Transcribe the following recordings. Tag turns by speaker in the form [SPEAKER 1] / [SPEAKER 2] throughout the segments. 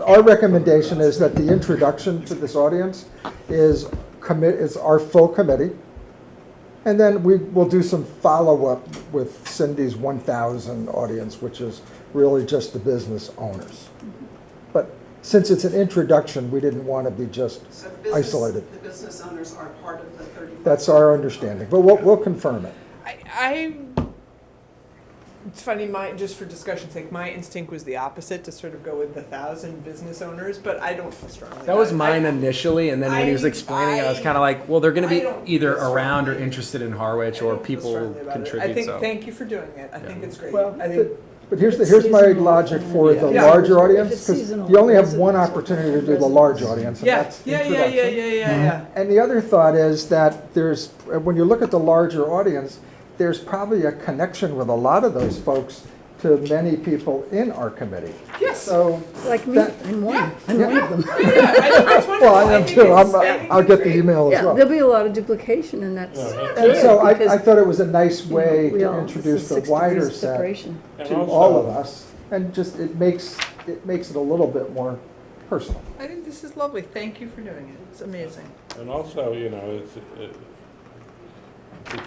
[SPEAKER 1] Our recommendation is that the introduction to this audience is commit, is our full committee. And then we will do some follow-up with Cindy's 1,000 audience, which is really just the business owners. But since it's an introduction, we didn't want to be just,
[SPEAKER 2] So the business-
[SPEAKER 1] Isolated.
[SPEAKER 2] The business owners are part of the 35.
[SPEAKER 1] that's our understanding, but we'll, we'll confirm it.
[SPEAKER 3] I, I it's funny my just for discussion's sake my instinct was the opposite to sort of go with the thousand business owners but i don't feel strongly
[SPEAKER 4] That was
[SPEAKER 3] about it.
[SPEAKER 4] mine initially, and then when he was
[SPEAKER 3] I-
[SPEAKER 4] explaining, I, was
[SPEAKER 3] I-
[SPEAKER 4] kind of like, well, they're going
[SPEAKER 3] I
[SPEAKER 4] to
[SPEAKER 3] don't
[SPEAKER 4] be either
[SPEAKER 3] feel
[SPEAKER 4] around or
[SPEAKER 3] strongly-
[SPEAKER 4] interested in
[SPEAKER 3] I,
[SPEAKER 4] Harwich,
[SPEAKER 3] I
[SPEAKER 4] or
[SPEAKER 3] don't feel
[SPEAKER 4] people
[SPEAKER 3] strongly about it.
[SPEAKER 4] contribute.
[SPEAKER 3] i think
[SPEAKER 4] so.
[SPEAKER 3] thank you for doing it i think
[SPEAKER 4] Yeah.
[SPEAKER 3] it's great
[SPEAKER 1] Well,
[SPEAKER 3] i think
[SPEAKER 1] but- but here's, the
[SPEAKER 5] It's
[SPEAKER 1] here's my
[SPEAKER 5] seasonal.
[SPEAKER 1] logic for the
[SPEAKER 3] Yeah.
[SPEAKER 1] larger
[SPEAKER 5] If
[SPEAKER 1] audience,
[SPEAKER 5] it's
[SPEAKER 1] because
[SPEAKER 5] seasonal,
[SPEAKER 1] you only have one
[SPEAKER 5] residents or
[SPEAKER 1] opportunity to do the large
[SPEAKER 5] residents.
[SPEAKER 1] audience, and
[SPEAKER 3] yeah
[SPEAKER 1] that's
[SPEAKER 3] yeah
[SPEAKER 1] introduction. Mm-hmm.
[SPEAKER 3] yeah yeah yeah yeah yeah
[SPEAKER 1] And the other thought is that there's, when you look at the larger audience, there's probably a connection with a lot of those folks to many people in our committee.
[SPEAKER 3] yes
[SPEAKER 1] So,
[SPEAKER 5] Like me,
[SPEAKER 1] That-
[SPEAKER 5] I'm one, I'm one of them.
[SPEAKER 3] yeah, yeah, I think that's wonderful.
[SPEAKER 1] well, I am
[SPEAKER 3] think
[SPEAKER 1] too,
[SPEAKER 3] it's-
[SPEAKER 1] I'm, uh,
[SPEAKER 3] I think
[SPEAKER 1] I'll
[SPEAKER 3] it's
[SPEAKER 1] get the
[SPEAKER 3] great.
[SPEAKER 1] email as
[SPEAKER 5] Yeah,
[SPEAKER 1] well.
[SPEAKER 5] there'll be a lot of duplication and that's.
[SPEAKER 1] And so I,
[SPEAKER 5] because,
[SPEAKER 1] I thought it was a nice
[SPEAKER 5] you know,
[SPEAKER 1] way
[SPEAKER 5] we all-
[SPEAKER 1] to
[SPEAKER 5] this
[SPEAKER 1] introduce
[SPEAKER 5] is
[SPEAKER 1] the
[SPEAKER 5] six degrees
[SPEAKER 1] wider
[SPEAKER 5] of
[SPEAKER 1] set
[SPEAKER 5] separation.
[SPEAKER 1] to all of us, and just, it makes, it makes it a little bit more personal.
[SPEAKER 3] i think this is lovely thank you for doing it it's amazing
[SPEAKER 6] And also, you know, it's, it-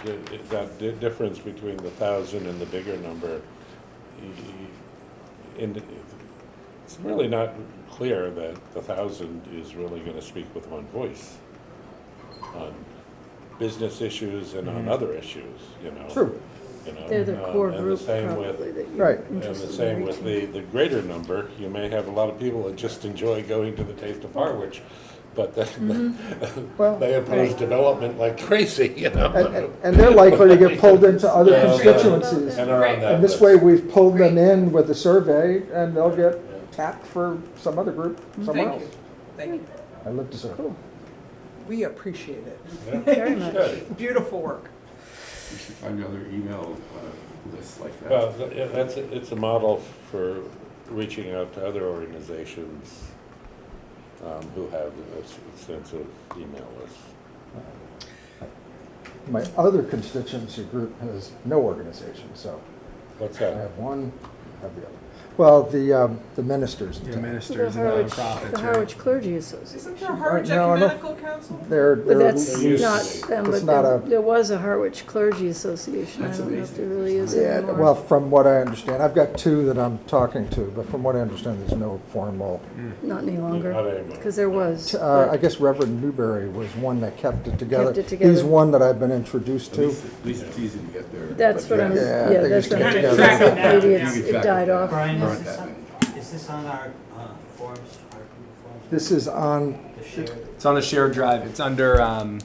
[SPEAKER 6] it- it- that di- difference between the thousand and the bigger number, y- y- and it's really not clear that the thousand is really gonna speak with one voice on business issues and on other issues, you know?
[SPEAKER 1] Mm-hmm. True,
[SPEAKER 6] you know,
[SPEAKER 5] They're the
[SPEAKER 6] um,
[SPEAKER 5] core
[SPEAKER 6] and the
[SPEAKER 5] group
[SPEAKER 6] same
[SPEAKER 5] probably
[SPEAKER 6] with-
[SPEAKER 5] that you're
[SPEAKER 1] Right.
[SPEAKER 6] And the
[SPEAKER 5] interested in
[SPEAKER 6] same with
[SPEAKER 5] reaching.
[SPEAKER 6] the, the greater number, you may have a lot of people that just enjoy going to the Taste of Harwich, but then
[SPEAKER 1] well.
[SPEAKER 6] they oppose development like crazy, you
[SPEAKER 1] Oh, And,
[SPEAKER 6] know?
[SPEAKER 1] and- and they're likely to get pulled into other
[SPEAKER 6] Yeah.
[SPEAKER 1] constituencies.
[SPEAKER 6] And are on that
[SPEAKER 1] And this
[SPEAKER 6] list.
[SPEAKER 1] way, we've pulled them in with the survey, and they'll get tapped for some other group
[SPEAKER 5] Mm-hmm.
[SPEAKER 1] somewhere else.
[SPEAKER 3] thank you thank you
[SPEAKER 1] I live to serve.
[SPEAKER 3] we appreciate it
[SPEAKER 6] Yeah.
[SPEAKER 5] Very much.
[SPEAKER 6] Good.
[SPEAKER 3] beautiful work
[SPEAKER 7] You should find another email uh, list like that.
[SPEAKER 6] Well, th- yeah, that's, it's a model for reaching out to other organizations um, who have ex- extensive email lists.
[SPEAKER 1] My other constituency group has no organization, so
[SPEAKER 6] What's
[SPEAKER 1] I
[SPEAKER 6] that?
[SPEAKER 1] have one, I have the other. Well, the, um, the ministers in
[SPEAKER 4] Yeah,
[SPEAKER 1] town.
[SPEAKER 5] The
[SPEAKER 4] ministers and
[SPEAKER 5] Harwich,
[SPEAKER 4] nonprofits.
[SPEAKER 5] the
[SPEAKER 4] right?
[SPEAKER 5] Harwich Clergy Association.
[SPEAKER 3] isn't there a harvard
[SPEAKER 1] no, I don't-
[SPEAKER 3] ecumenical council
[SPEAKER 1] They're,
[SPEAKER 5] But
[SPEAKER 1] they're,
[SPEAKER 5] that's
[SPEAKER 6] There used to
[SPEAKER 5] not
[SPEAKER 6] be.
[SPEAKER 5] them,
[SPEAKER 1] It's
[SPEAKER 5] but
[SPEAKER 1] not
[SPEAKER 5] there,
[SPEAKER 1] a-
[SPEAKER 5] there was a Harwich Clergy Association. I
[SPEAKER 7] That's
[SPEAKER 5] don't know if
[SPEAKER 7] amazing.
[SPEAKER 5] there really is
[SPEAKER 1] yeah,
[SPEAKER 5] anymore.
[SPEAKER 1] well, from what I understand, I've got two that I'm talking to, but from what I understand, there's no formal.
[SPEAKER 7] Mm.
[SPEAKER 5] Not any
[SPEAKER 6] Not
[SPEAKER 5] longer,
[SPEAKER 6] anymore.
[SPEAKER 5] because there was.
[SPEAKER 1] Uh, I guess Reverend Newberry was one that kept it together.
[SPEAKER 5] Kept it together.
[SPEAKER 1] He's one that I've been introduced
[SPEAKER 7] At
[SPEAKER 1] to.
[SPEAKER 7] least, at least it's easy to get there.
[SPEAKER 5] That's what I'm,
[SPEAKER 1] Yeah,
[SPEAKER 5] yeah,
[SPEAKER 1] they
[SPEAKER 5] that's
[SPEAKER 1] used to
[SPEAKER 5] what I'm,
[SPEAKER 1] get
[SPEAKER 5] maybe
[SPEAKER 1] together.
[SPEAKER 5] it's,
[SPEAKER 7] You can
[SPEAKER 5] it
[SPEAKER 7] track
[SPEAKER 5] died
[SPEAKER 7] it.
[SPEAKER 5] off.
[SPEAKER 8] Brian,
[SPEAKER 7] Aren't
[SPEAKER 8] is this
[SPEAKER 7] that
[SPEAKER 8] on,
[SPEAKER 7] many.
[SPEAKER 8] is this on our uh, forms, our Google forms?
[SPEAKER 1] This is on,
[SPEAKER 8] The shared,
[SPEAKER 4] It's on the shared drive. It's under. Um,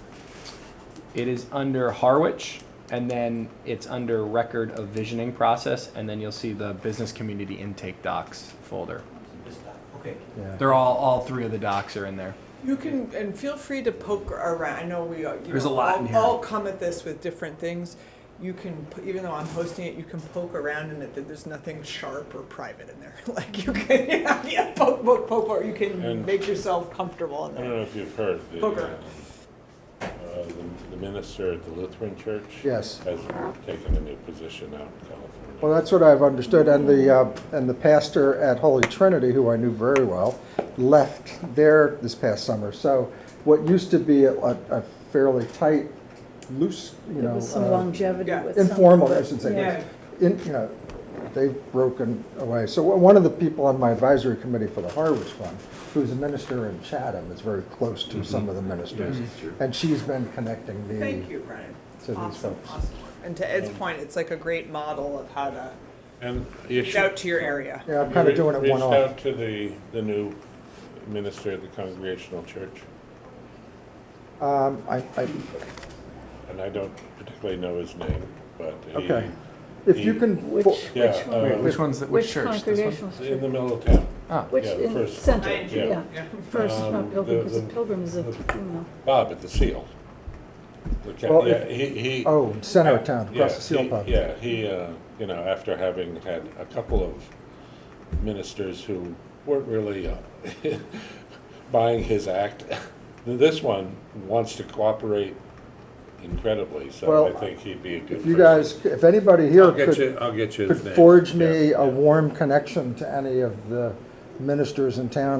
[SPEAKER 4] it is under Harwich, and then it's under record of visioning process, and then you'll see the business community intake docs folder.
[SPEAKER 8] this doc, okay.
[SPEAKER 1] yeah.
[SPEAKER 4] They're all all three of the docs are in there.
[SPEAKER 3] You can, and feel free to poke around. I know we, uh, you
[SPEAKER 4] There's
[SPEAKER 3] know,
[SPEAKER 4] a lot
[SPEAKER 3] all,
[SPEAKER 4] in here.
[SPEAKER 3] all come at this with different things. You can, p- even though I'm hosting it, you can poke around in it. That there's nothing sharp or private in there. Like you can, yeah, yeah, poke, poke, poke, or you can
[SPEAKER 6] And-
[SPEAKER 3] make yourself comfortable in
[SPEAKER 6] I don't
[SPEAKER 3] there.
[SPEAKER 6] know if you've heard, the,
[SPEAKER 3] Poker.
[SPEAKER 6] um, uh, the- the minister at the Lutheran Church.
[SPEAKER 1] Yes.
[SPEAKER 6] Has taken a new position out in California.
[SPEAKER 1] Well, that's what I've understood, and the, uh, and the pastor at Holy Trinity, who I knew very well, left there this past summer. So what used to be a, a fairly tight, loose, you
[SPEAKER 5] There
[SPEAKER 1] know,
[SPEAKER 5] was some
[SPEAKER 1] uh,
[SPEAKER 5] longevity
[SPEAKER 3] yeah.
[SPEAKER 5] with some.
[SPEAKER 1] informal, I
[SPEAKER 5] but-
[SPEAKER 1] should say,
[SPEAKER 3] Yeah.
[SPEAKER 1] in, you know, they've broken away. So one of the people on my advisory committee for the Harwich Fund, who's a minister in Chatham, is very close to some of the ministers. And she's been connecting me.
[SPEAKER 3] Thank you, Brian.
[SPEAKER 1] So these
[SPEAKER 3] awesome,
[SPEAKER 1] folks.
[SPEAKER 3] awesome. work. And to Ed's point, it's like a great model of how to
[SPEAKER 6] And you
[SPEAKER 3] reach
[SPEAKER 6] should-
[SPEAKER 3] out to your area.
[SPEAKER 1] Yeah, I'm kind of
[SPEAKER 6] Re-
[SPEAKER 1] doing it one-off.
[SPEAKER 6] Reached out to the, the new minister of the Congregational Church,
[SPEAKER 1] Um, I, I,
[SPEAKER 6] and I don't particularly know his name, but he.
[SPEAKER 1] Okay. if you can.
[SPEAKER 5] Which,
[SPEAKER 1] well,
[SPEAKER 6] Yeah,
[SPEAKER 5] which
[SPEAKER 6] uh,
[SPEAKER 5] one?
[SPEAKER 4] Wait, which one's the, which,
[SPEAKER 5] Which
[SPEAKER 4] church? This one?
[SPEAKER 5] congregational
[SPEAKER 6] In
[SPEAKER 5] church?
[SPEAKER 6] the middle of town.
[SPEAKER 4] Ah,
[SPEAKER 5] Which,
[SPEAKER 6] yeah, the
[SPEAKER 5] in
[SPEAKER 6] first
[SPEAKER 5] center,
[SPEAKER 3] one.
[SPEAKER 6] Yeah.
[SPEAKER 5] yeah. First,
[SPEAKER 6] Um,
[SPEAKER 5] not
[SPEAKER 6] the-
[SPEAKER 5] pilgrim, because a
[SPEAKER 6] the-
[SPEAKER 5] pilgrim is a,
[SPEAKER 6] the-
[SPEAKER 5] you know.
[SPEAKER 6] Bob at the Seal. The ca-
[SPEAKER 1] Well,
[SPEAKER 6] yeah,
[SPEAKER 1] if-
[SPEAKER 6] he, he.
[SPEAKER 1] Oh, center of town,
[SPEAKER 6] yeah,
[SPEAKER 1] across the seal
[SPEAKER 6] he-
[SPEAKER 1] pub.
[SPEAKER 6] Yeah, he, uh, you know, after having had a couple of ministers who weren't really uh, buying his act, this one wants to cooperate incredibly, so I
[SPEAKER 1] Well,
[SPEAKER 6] think he'd be a good
[SPEAKER 1] If you
[SPEAKER 6] person.
[SPEAKER 1] guys, if anybody here
[SPEAKER 6] I'll get you,
[SPEAKER 1] could,
[SPEAKER 6] I'll get you his
[SPEAKER 1] could
[SPEAKER 6] name.
[SPEAKER 1] forge
[SPEAKER 6] Yeah,
[SPEAKER 1] me
[SPEAKER 6] yeah.
[SPEAKER 1] a warm connection to any of the ministers in town